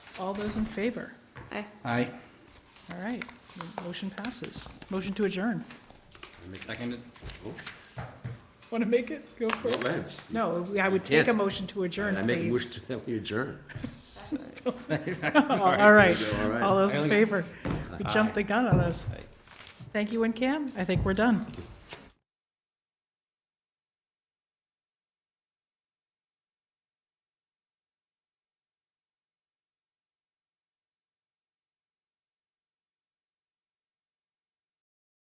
All those in favor? Aye. Aye. All right, the motion passes. Motion to adjourn. Seconded? Oh, Want to make it? Go for Go it. ahead. No, I would take a Yes. motion to adjourn, I make a please. motion that we adjourn. All right, All right. all those in favor? You jumped the gun on us. Thank you and Cam, I think we're done.